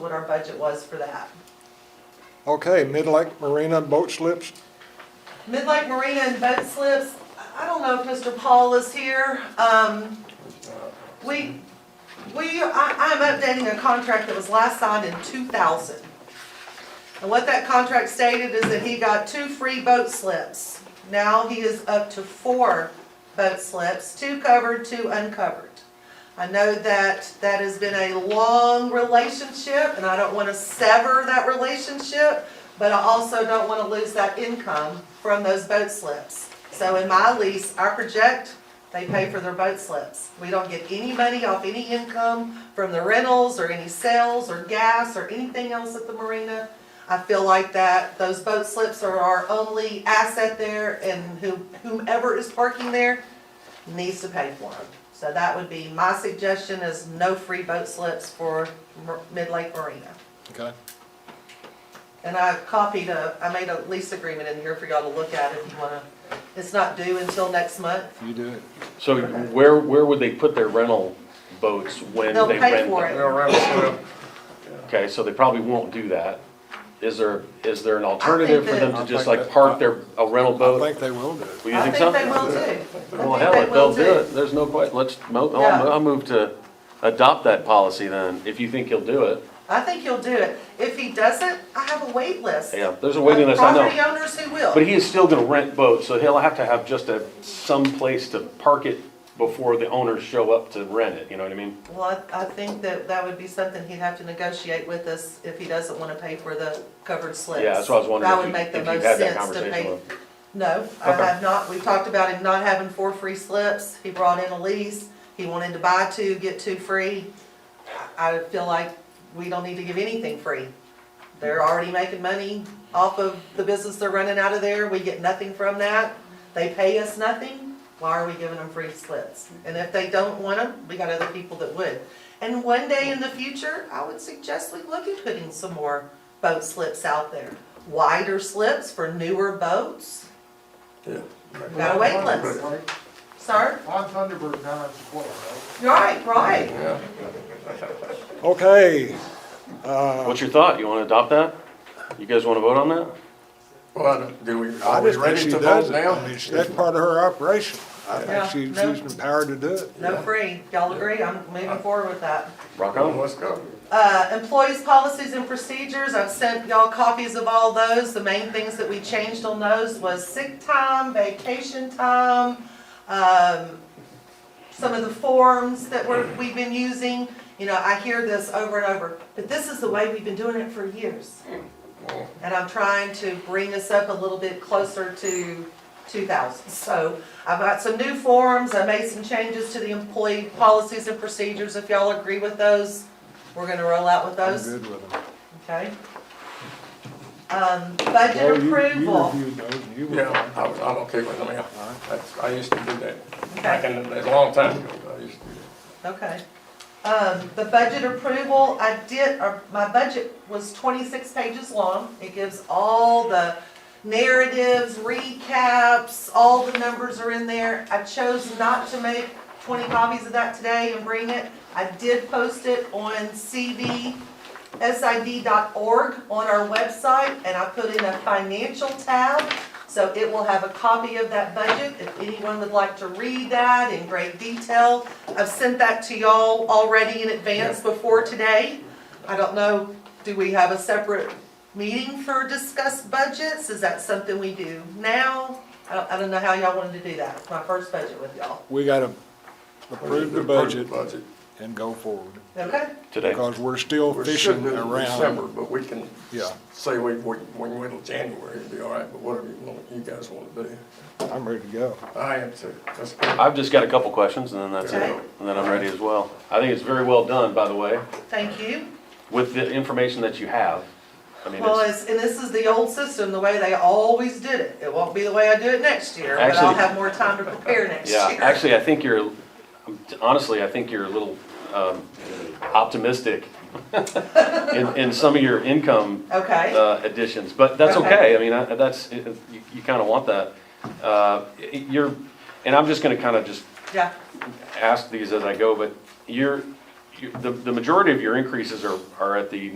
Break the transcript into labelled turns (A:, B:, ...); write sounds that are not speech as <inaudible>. A: what our budget was for that.
B: Okay, Mid-Lake Marina boat slips,
A: Midlake Marina and boat slips, I- I don't know if Mr. Paul is here. Um, we, we, I, I'm updating a contract that was last signed in two thousand. And what that contract stated is that he got two free boat slips. Now he is up to four boat slips, two covered, two uncovered. I know that that has been a long relationship and I don't want to sever that relationship, but I also don't want to lose that income from those boat slips. So in my lease, I project they pay for their boat slips. We don't get any money off any income from the rentals or any sales or gas or anything else at the marina. I feel like that those boat slips are our only asset there and who- whomever is parking there needs to pay for them. So that would be my suggestion is no free boat slips for Mer- Mid-Lake Marina.
B: okay?
A: And I copied a, I made a lease agreement in here for y'all to look at if you wanna, it's not due until next month.
B: You do it.
C: So where, where would they put their rental boats when
A: They'll
C: they
A: pay
C: rent
A: for
C: them?
A: it.
D: They'll rent a slip.
C: Okay, so they probably won't do that. Is there, is there an
A: I
C: alternative
A: think
C: for them
B: that-
C: to just
B: I
C: like
B: think
C: park
B: that-
C: their, a rental
B: I
C: boat?
B: think they will do it.
C: Well, you
A: I think
C: think so?
A: they will too.
C: Well,
A: I
C: hell,
A: think
C: if
A: they
C: they'll
A: will
C: do
A: too.
C: it, there's no question. Let's, mo-
A: Yeah.
C: I'll, I'll move to adopt that policy then, if you think he'll do it.
A: I think he'll do it. If he doesn't, I have a wait list.
C: Yeah, there's a waiting
A: of
C: list, I
A: Property
C: know.
A: owners who will.
C: But he is still gonna rent boats, so he'll have to have just a, some place to park it before the owners show up to rent it, you know what I mean?
A: Well, I, I think that that would be something he'd have to negotiate with us if he doesn't wanna pay for the covered slips.
C: Yeah, that's what I was wondering
A: That
C: if
A: would
C: you-
A: make the
C: if you've
A: most
C: had that
A: sense to
C: conversation
A: pay.
C: with
A: No, I
C: Okay.
A: have not. We talked about him not having four free slips. He brought in a lease. He wanted to buy two, get two free. I I feel like we don't need to give anything free. They're already making money off of the business they're running out of there. We get nothing from that. They pay us nothing. Why are we giving them free slips? And if they don't want them, we got other people that would. And one day in the future, I would suggest we look at putting some more boat slips out there. Wider slips for newer boats. Got a wait list. Sir?
D: On Thunderbird, down at Sequoia, right?
A: Right, right.
B: Okay,
C: What's your thought? You wanna adopt that? You guys wanna vote on that?
E: Well, do we,
B: I
E: are we
B: just think
E: ready
B: she
E: to
B: does
E: vote
B: it. I mean,
E: now?
B: that's part of her operation. I
A: Yeah,
B: think she-
A: no.
B: she's empowered to do it.
A: No free. Y'all agree? I'm moving forward with that.
C: Rock
E: Come,
C: on.
E: let's go.
A: Uh, employees' policies and procedures, I've sent y'all copies of all those. The main things that we changed on those was sick time, vacation time, um, some of the forms that we're, we've been using. You know, I hear this over and over, but this is the way we've been doing it for years. And I'm trying to bring us up a little bit closer to two thousand. So I've got some new forms, I made some changes to the employee policies and procedures. If y'all agree with those, we're gonna roll out with
B: I'm
A: those,
B: good with them.
A: okay? Um, budget
B: Well, you- You
A: approval,
B: reviewed those and you were
E: Yeah,
B: fine.
E: I was, I'm okay with them, yeah. That's, I used to do that, back
A: okay,
E: in, the- a long time ago, I used to do
A: okay. Um, the budget approval, I did, or my budget was twenty-six pages long. It gives all the narratives, recaps, all the numbers are in there. I chose not to make twenty copies of that today and bring it. I did post it on cvsid.org on our website, and I put in a financial tab. So it will have a copy of that budget, if anyone would like to read that in great detail. I've sent that to y'all already in advance before today. I don't know, do we have a separate meeting for discuss budgets? Is that something we do now? I don't, I don't know how y'all wanted to do that, It's my first budget with y'all,
B: We gotta
E: that.
B: approve the budget
E: Budget.
B: and go forward,
A: okay?
C: Today.
B: because we're still
E: We should
B: fishing
E: do it in December,
B: around.
E: but we can
B: Yeah,
E: say we, we, we wait till January, it'll be all right, but whatever you want, you guys want to do.
B: I'm ready to go.
E: I am too, let's go.
C: I've just got a couple questions and then that's it.
A: Okay.
C: And then I'm ready as well. I think it's very well done, by the way,
A: Thank you.
C: with the information that you have. I mean,
A: Well,
C: it's,
A: it's, and this is the old system, the way they always did it. It won't be the way I do it next year, but I'll
C: Actually-
A: have more time to prepare next year.
C: yeah, actually, I think you're, honestly, I think you're a little um, optimistic <laughs> in, in some of your income
A: Okay.
C: uh, additions, but that's
A: Okay.
C: okay. I mean, I- that's, you, you kind of want that. Uh, You're, and I'm just going to kind of just
A: Yeah,
C: ask these as I go, but you're, you- the, the majority of your increases are, are at the